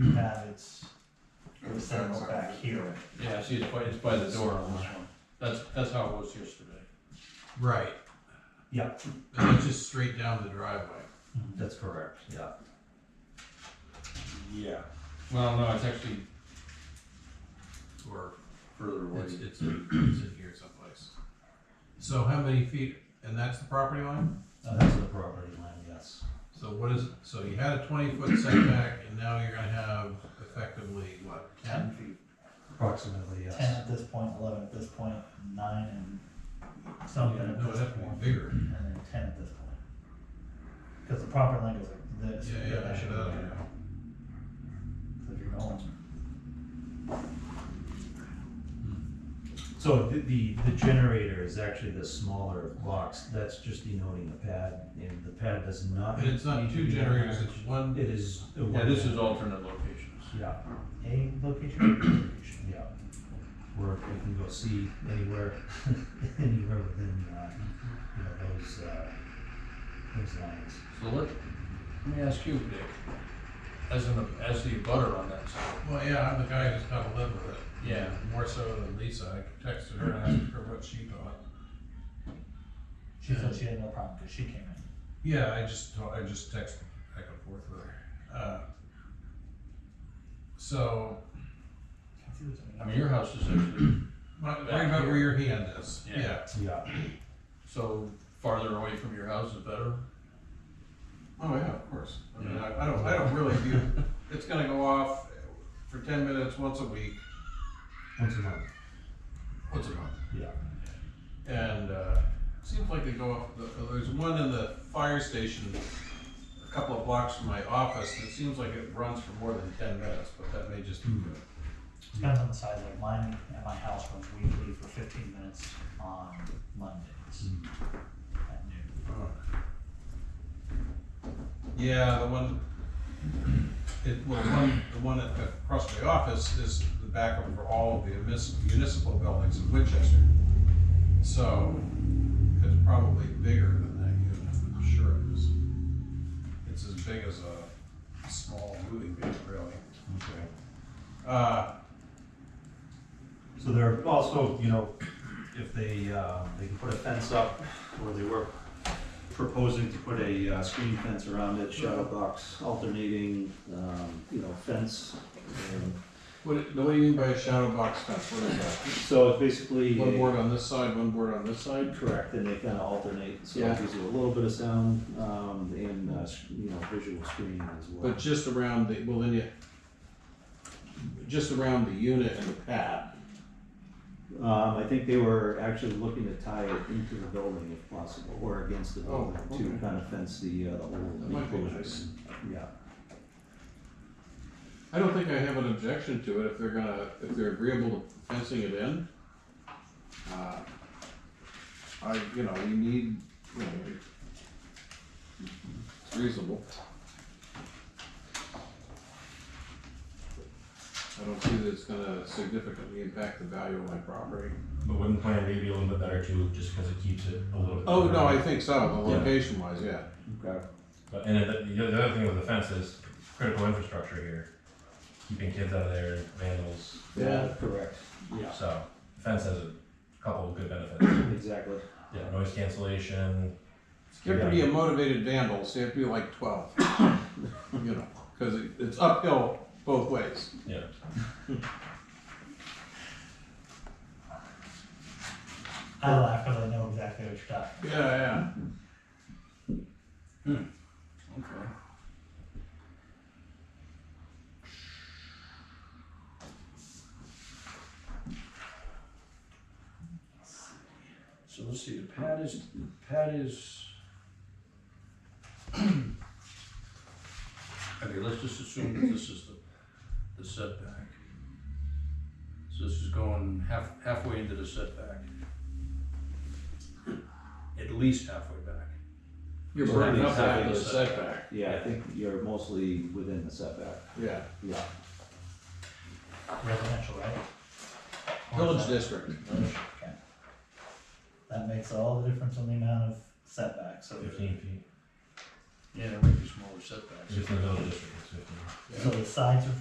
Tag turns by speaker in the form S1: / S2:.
S1: you have its,
S2: The
S1: its terminal
S2: fence
S1: back
S2: on it.
S1: here.
S3: Yeah, see, it's by, it's by the door on this one. That's, that's how it was yesterday.
S4: Right.
S1: Yep.
S4: And it's just straight down the driveway.
S5: That's correct, yeah.
S3: Yeah. Well, no, it's actually
S4: Or
S3: further away.
S4: it's, it's, it's in here someplace. So how many feet, and that's the property line?
S5: Uh, That's the property line, yes.
S4: So what is, so you had a twenty foot setback and now you're gonna have effectively, what, ten?
S1: feet.
S5: Approximately, yes.
S1: Ten at this point, eleven at this point, nine and something
S4: Yeah,
S1: at
S4: No,
S1: this
S4: it'd have to
S1: point,
S4: be bigger.
S1: and then ten at this point. Cause the property line goes like this.
S4: Yeah, yeah, I should have, you know.
S1: So if you're going.
S5: So the, the, the generator is actually the smaller box, that's just denoting the pad, and the pad does not.
S4: And it's not
S5: need to
S4: two
S5: be that
S4: generators,
S5: large.
S4: it's one,
S5: It is. a
S3: Yeah, this
S5: one-
S3: is alternate locations.
S5: Yeah,
S1: A location, or B location.
S5: yeah. Where we can go see anywhere, anywhere within, uh, you know, those, uh, those lines.
S3: So let, let me ask you, Dick, as an, as the butter on that side,
S4: well, yeah, I'm the guy who's gotta live with it.
S3: Yeah.
S4: More so than Lisa, I texted her and asked her what she thought.
S1: She said she had no problem, cause she came in.
S4: Yeah, I just told- I just text back and forth with her. Uh, so,
S3: I mean, your house is actually,
S4: right
S3: Back
S4: about where
S3: here.
S4: your hand is.
S3: Yeah.
S5: Yeah,
S3: so farther away from your house is better?
S4: Oh yeah, of course. I mean,
S3: Yeah.
S4: I, I don't. I don't really view. it's gonna go off for ten minutes once a week,
S5: once a month,
S4: once a month,
S5: yeah.
S4: and uh, seems like they go off. The, there's one in the fire station, a couple of blocks from my office. and It seems like it runs for more than ten minutes, but that may just be
S5: Hmm.
S4: good.
S1: Depends on the size, like mine at my house runs weekly for fifteen minutes on Mondays
S5: Mm.
S1: at noon.
S4: Yeah, the one, it, well, the one, the one at- across my office is the backup for all of the munis- municipal buildings in Winchester. So, it's probably bigger than that unit, I'm sure it is. It's as big as a small moving vehicle, really.
S5: Okay.
S4: Uh,
S5: So there are also, you know, if they, uh, they can put a fence up, or they were proposing to put a uh, screen fence around it, shadow box, alternating, um, you know, fence. And
S4: what, what do you mean by a shadow box fence, what is that?
S5: So it's basically.
S4: One
S5: a-
S4: board on this side, one board on this side?
S5: Correct, and they kind of alternate, so
S4: Yeah.
S5: it gives you a little bit of sound, um, and, uh, s- you know, visual screen as well.
S4: But just around the, well, then you, just around the unit and the pad.
S5: Um, I think they were actually looking to tie it into the building if possible, or against the
S4: Oh,
S5: building
S4: okay.
S5: to kind of fence the, uh, the whole
S4: That might be nice.
S5: enclosure. Yeah.
S4: I don't think I have an objection to it if they're gonna, if they're agreeable to fencing it in. Uh, I, you know, we need, you know, we- it's reasonable. I don't see that it's gonna significantly impact the value of my property.
S6: But wouldn't plan B be a little bit better too, just because it keeps it a little bit?
S4: Oh, no, I
S6: further?
S4: think so, the
S6: Yeah.
S4: location wise, yeah.
S5: Okay.
S6: But, and then the, the other thing with the fence is critical infrastructure here, keeping kids out of there, vandals,
S4: Yeah.
S5: Correct. Yeah,
S6: so fence has a couple of good benefits.
S5: exactly.
S6: Yeah, noise cancellation.
S4: You have to be a motivated vandal, so you have to be like twelve. you know, because it, it's uphill both ways.
S6: Yeah,
S1: I laugh because I know exactly what you're talking.
S4: Yeah, yeah.
S3: Okay. So let's see, the pad is, the pad is. Okay, let's just assume that this is the, the setback. So this is going half, halfway into the setback. At least halfway back.
S4: You're
S5: Well,
S4: burning up
S5: that means
S4: half
S5: having
S4: of the
S5: the
S4: setback.
S5: Yeah, I think you're mostly within the setback.
S4: Yeah.
S5: Yeah.
S1: about. Residential, right?
S4: Village
S1: Horizontal.
S4: district.
S1: Okay. That makes all the difference on the amount of setback, so.
S6: fifteen feet,
S3: Yeah, there might be smaller setbacks.
S6: just in the village district, it's fifteen.
S1: So the sides are